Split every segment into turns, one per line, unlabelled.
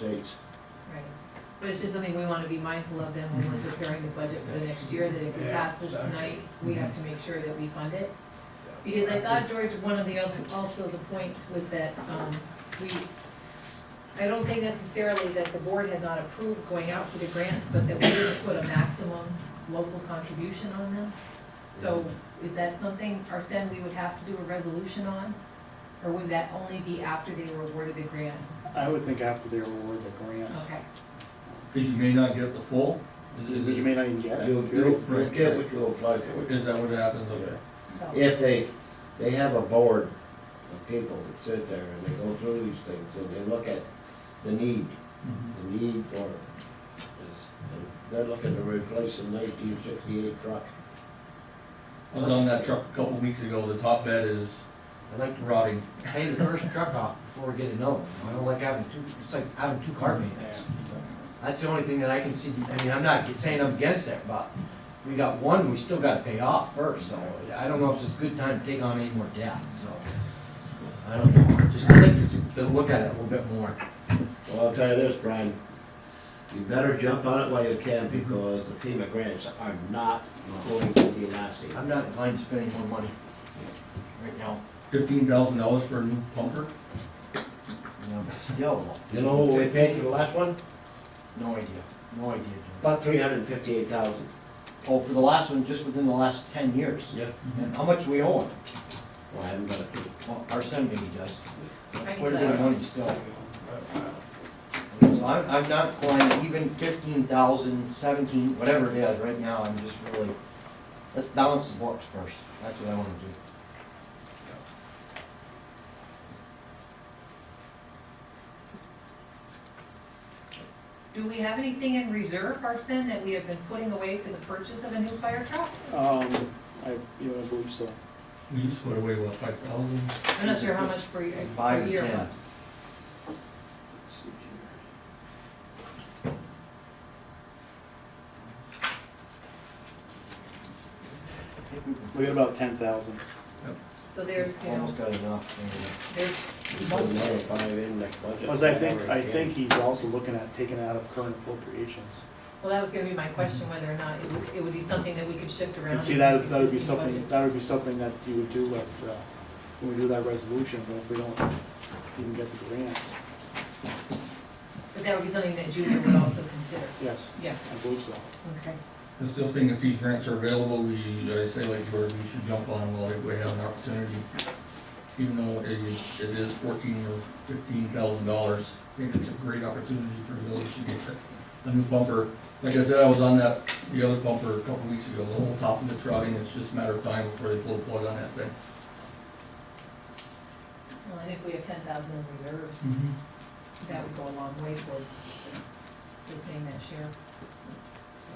sakes.
Right, but it's just something we wanna be mindful of then when we're preparing the budget for the next year, that if we pass this tonight, we have to make sure that we fund it. Because I thought, George, one of the other, also the points was that, um, we, I don't think necessarily that the board had not approved going out for the grants, but that we would put a maximum local contribution on them. So is that something, Arsen, we would have to do a resolution on? Or would that only be after they were awarded the grant?
I would think after they award the grants,
Okay,
Because you may not get the full? Is
you
is it-
may not even get it.
You'll, you'll, you'll get what you apply for.
is that what happens? Okay.
so.
If they, they have a board of people that sit there and they go through these things and they look at the need, the need for it. It's- and They're looking to replace a nineteen sixty-eight truck.
I was on that truck a couple weeks ago, the top bed is
I like to
rotting.
pay the first truck off before we get another one. I don't like having two, it's like having two car
Yeah.
maintenance. That's the only thing that I can see, I mean, I'm not saying I'm against that, but we got one, we still gotta pay off first, so I don't know if it's a good time to take on any more debt, so. I don't know, just I think it's, to look at it a little bit more.
Well, I'll tell you this, Brian, you better jump on it while you can because the FEMA grants are not going to be nasty.
I'm not inclined to spend any more money right now,
Fifteen thousand dollars for a new pumper?
you know, but still,
You know what we paid for the last one?
no idea, no idea. But,
About three hundred and fifty-eight thousand.
oh, for the last one, just within the last ten years,
Yeah.
and how much we owe it?
Well, I haven't got a clue.
Well, our son maybe does.
I can
Where did
tell.
the money still? So I'm, I'm not inclined, even fifteen thousand, seventeen, whatever it is, right now, I'm just really, let's balance the books first, that's what I wanna do.
Do we have anything in reserve, Arson, that we have been putting away for the purchase of a new fire truck?
Um, I, you know, I believe so.
We used to put away, what, five thousand?
I'm not sure how much per, year- per
Five or
year.
ten.
Let's see here.
I think we-
We got about ten thousand.
So there's, you know,
Almost got enough,
Just
there's,
put
most-
another five in next budget.
Plus, I think, I think he's also looking at taking out of current appropriations.
well, that was gonna be my question, whether or not it would, it would be something that we could shift
You
around.
can see
in
that,
this
that would be
existing
something,
budget.
that would be something that you would do at, uh, when we do that resolution, but if we don't even get the grant,
But that would be something that Julia would also consider,
yes,
yeah,
I believe so.
okay.
I still think if these grants are available, we, I say like George, we should jump on while we have an opportunity. Even though it is, it is fourteen or fifteen thousand dollars, I think it's a great opportunity for the village to get a, a new bumper. Like I said, I was on that, the other bumper a couple weeks ago, the whole top of it's rotting, it's just a matter of time before they pull the plug on that thing.
Well, and if we have ten thousand in reserves, that would go a long way toward, toward paying that share. So,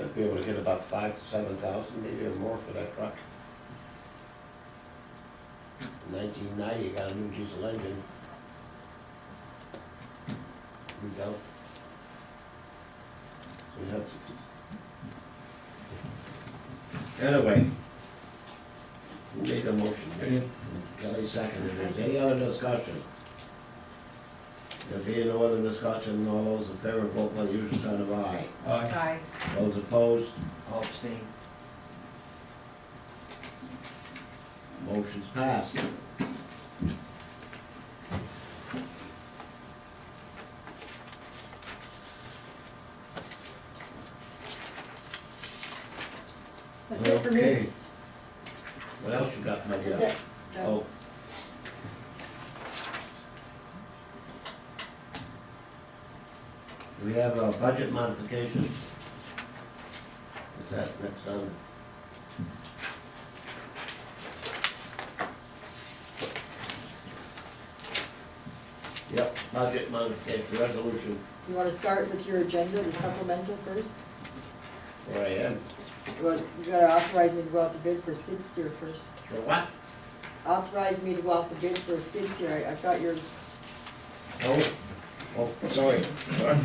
Should be able to get about five to seven thousand, maybe or more for that truck. Nineteen ninety, got a new diesel engine. We don't. We have to. Anyway. who Made a motion.
Okay,
Kelly seconded. Is there any other discussion? There being no other discussion, all those in favor, vote by the usual sign of aye.
aye.
Aye,
Those opposed,
I'll abstain.
Motion's passed.
That's it for me.
Okay. What else you got, my dear?
That's it. No.
Oh. We have a budget modification. Is that next on? Yep, budget modification, resolution,
You wanna start with your agenda, the supplemental first?
where I am.
Well, you gotta authorize me to go out to bid for a skid steer first.
For what?
Authorize me to go out to bid for a skid steer, I, I thought your,
Oh, oh, sorry, sorry.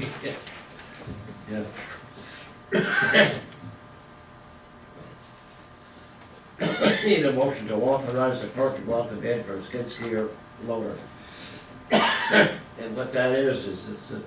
Yeah. Need a motion to authorize the clerk to go out to bid for a skid steer loader. And what that is, is it's a